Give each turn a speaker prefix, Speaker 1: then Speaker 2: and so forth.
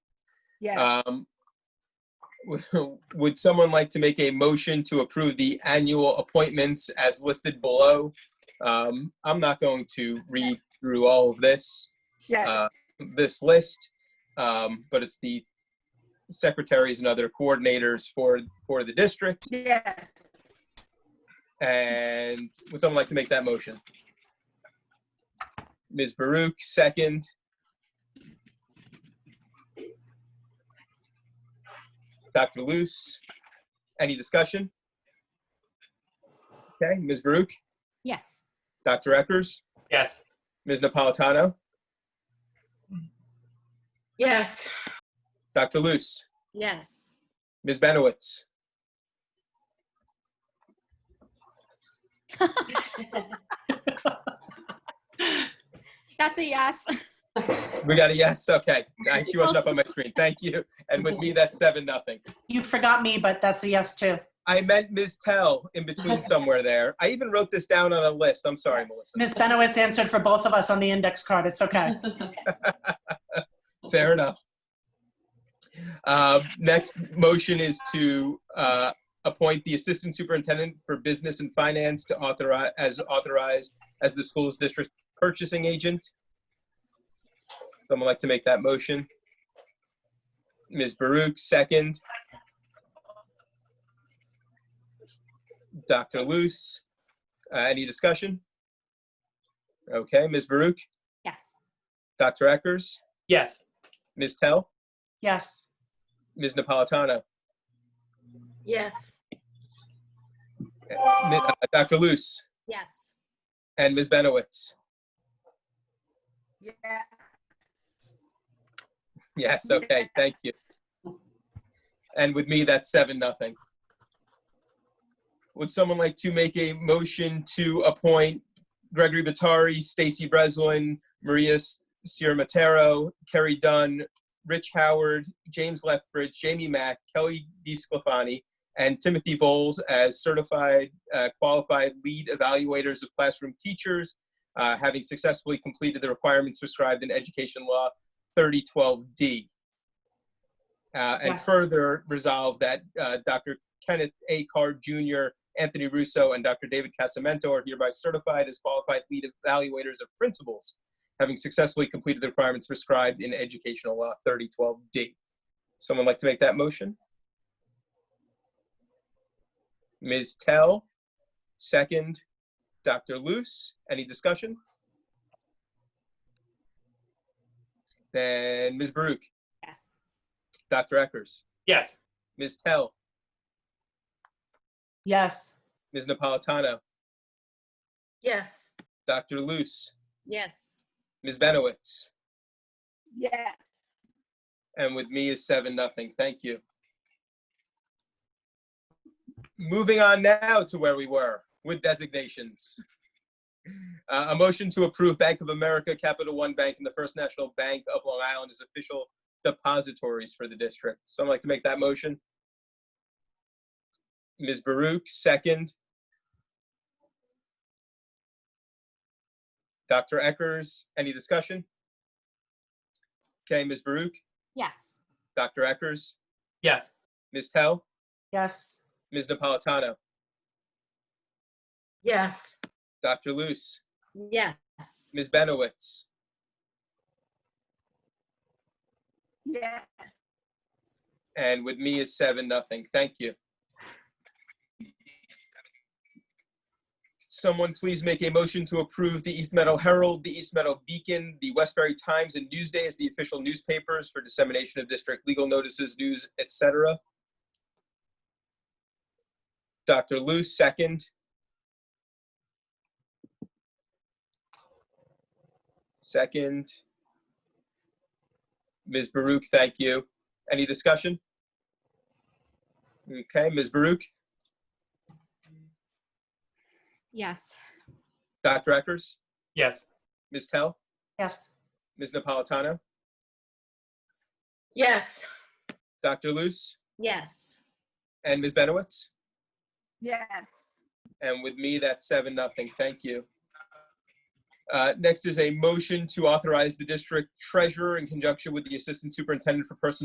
Speaker 1: Yes,
Speaker 2: Um, Would someone like to make a motion to approve the annual appointments as listed below? Um, I'm not going to read through all of this,
Speaker 1: yes,
Speaker 2: uh, this list, um, but it's the secretaries and other coordinators for, for the district.
Speaker 1: yes.
Speaker 2: And would someone like to make that motion? Ms. Baruch, second. Dr. Luce, any discussion? Okay, Ms. Baruch,
Speaker 3: Yes.
Speaker 2: Dr. Eckers,
Speaker 4: Yes.
Speaker 2: Ms. Napolitano,
Speaker 3: Yes.
Speaker 2: Dr. Luce,
Speaker 3: Yes.
Speaker 2: Ms. Benowitz.
Speaker 3: That's a yes.
Speaker 2: We got a yes, okay. I- She wasn't up on my screen, thank you. And with me, that's seven, nothing.
Speaker 4: You forgot me, but that's a yes too.
Speaker 2: I meant Ms. Tell in between somewhere there. I even wrote this down on a list. I'm sorry, Melissa.
Speaker 4: Ms. Benowitz answered for both of us on the index card. It's okay.
Speaker 2: Fair enough. Uh, Next motion is to uh, appoint the Assistant Superintendent for Business and Finance to authorize, as authorized as the school's district purchasing agent. Someone like to make that motion? Ms. Baruch, second. Dr. Luce, Uh, any discussion? Okay, Ms. Baruch,
Speaker 3: Yes.
Speaker 2: Dr. Eckers,
Speaker 4: Yes.
Speaker 2: Ms. Tell?
Speaker 4: Yes.
Speaker 2: Ms. Napolitano,
Speaker 3: Yes.
Speaker 2: Mi- uh, Dr. Luce,
Speaker 3: Yes.
Speaker 2: and Ms. Benowitz.
Speaker 1: Yeah,
Speaker 2: Yes, okay, thank you. And with me, that's seven, nothing. Would someone like to make a motion to appoint Gregory Batari, Stacy Breslin, Maria S- Sierra-Matero, Kerry Dunn, Rich Howard, James Lethbridge, Jamie Mack, Kelly DeSclafani, and Timothy Voles as certified uh, qualified lead evaluators of classroom teachers, uh, having successfully completed the requirements prescribed in education law 3012D. Uh, and
Speaker 4: Yes.
Speaker 2: further resolve that uh, Dr. Kenneth A. Card Jr., Anthony Russo, and Dr. David Casamento are hereby certified as qualified lead evaluators of principals, having successfully completed the requirements prescribed in educational law 3012D. Someone like to make that motion? Ms. Tell, second. Dr. Luce, any discussion? Then Ms. Baruch,
Speaker 3: Yes.
Speaker 2: Dr. Eckers,
Speaker 4: Yes.
Speaker 2: Ms. Tell,
Speaker 4: Yes.
Speaker 2: Ms. Napolitano,
Speaker 3: Yes.
Speaker 2: Dr. Luce,
Speaker 3: Yes.
Speaker 2: Ms. Benowitz,
Speaker 1: yeah,
Speaker 2: and with me is seven, nothing. Thank you. Moving on now to where we were with designations. Uh, a motion to approve Bank of America, Capital One Bank, and the First National Bank of Long Island as official depositories for the district. Someone like to make that motion? Ms. Baruch, second. Dr. Eckers, any discussion? Okay, Ms. Baruch?
Speaker 3: Yes.
Speaker 2: Dr. Eckers,
Speaker 4: Yes.
Speaker 2: Ms. Tell,
Speaker 4: Yes.
Speaker 2: Ms. Napolitano,
Speaker 3: Yes.
Speaker 2: Dr. Luce,
Speaker 3: Yes.
Speaker 2: Ms. Benowitz,
Speaker 1: yeah,
Speaker 2: and with me is seven, nothing. Thank you. Someone please make a motion to approve the East Meadow Herald, the East Meadow Beacon, the Westbury Times, and Newsday as the official newspapers for dissemination of district legal notices, news, etc. Dr. Luce, second. Second. Ms. Baruch, thank you. Any discussion? Okay, Ms. Baruch,
Speaker 3: Yes.
Speaker 2: Dr. Eckers,
Speaker 4: Yes.
Speaker 2: Ms. Tell,
Speaker 4: Yes.
Speaker 2: Ms. Napolitano,
Speaker 3: Yes.
Speaker 2: Dr. Luce,
Speaker 3: Yes.
Speaker 2: and Ms. Benowitz.
Speaker 1: yeah,
Speaker 2: And with me, that's seven, nothing. Thank you. Uh, Next is a motion to authorize the district treasurer in conjunction with the assistant superintendent for personnel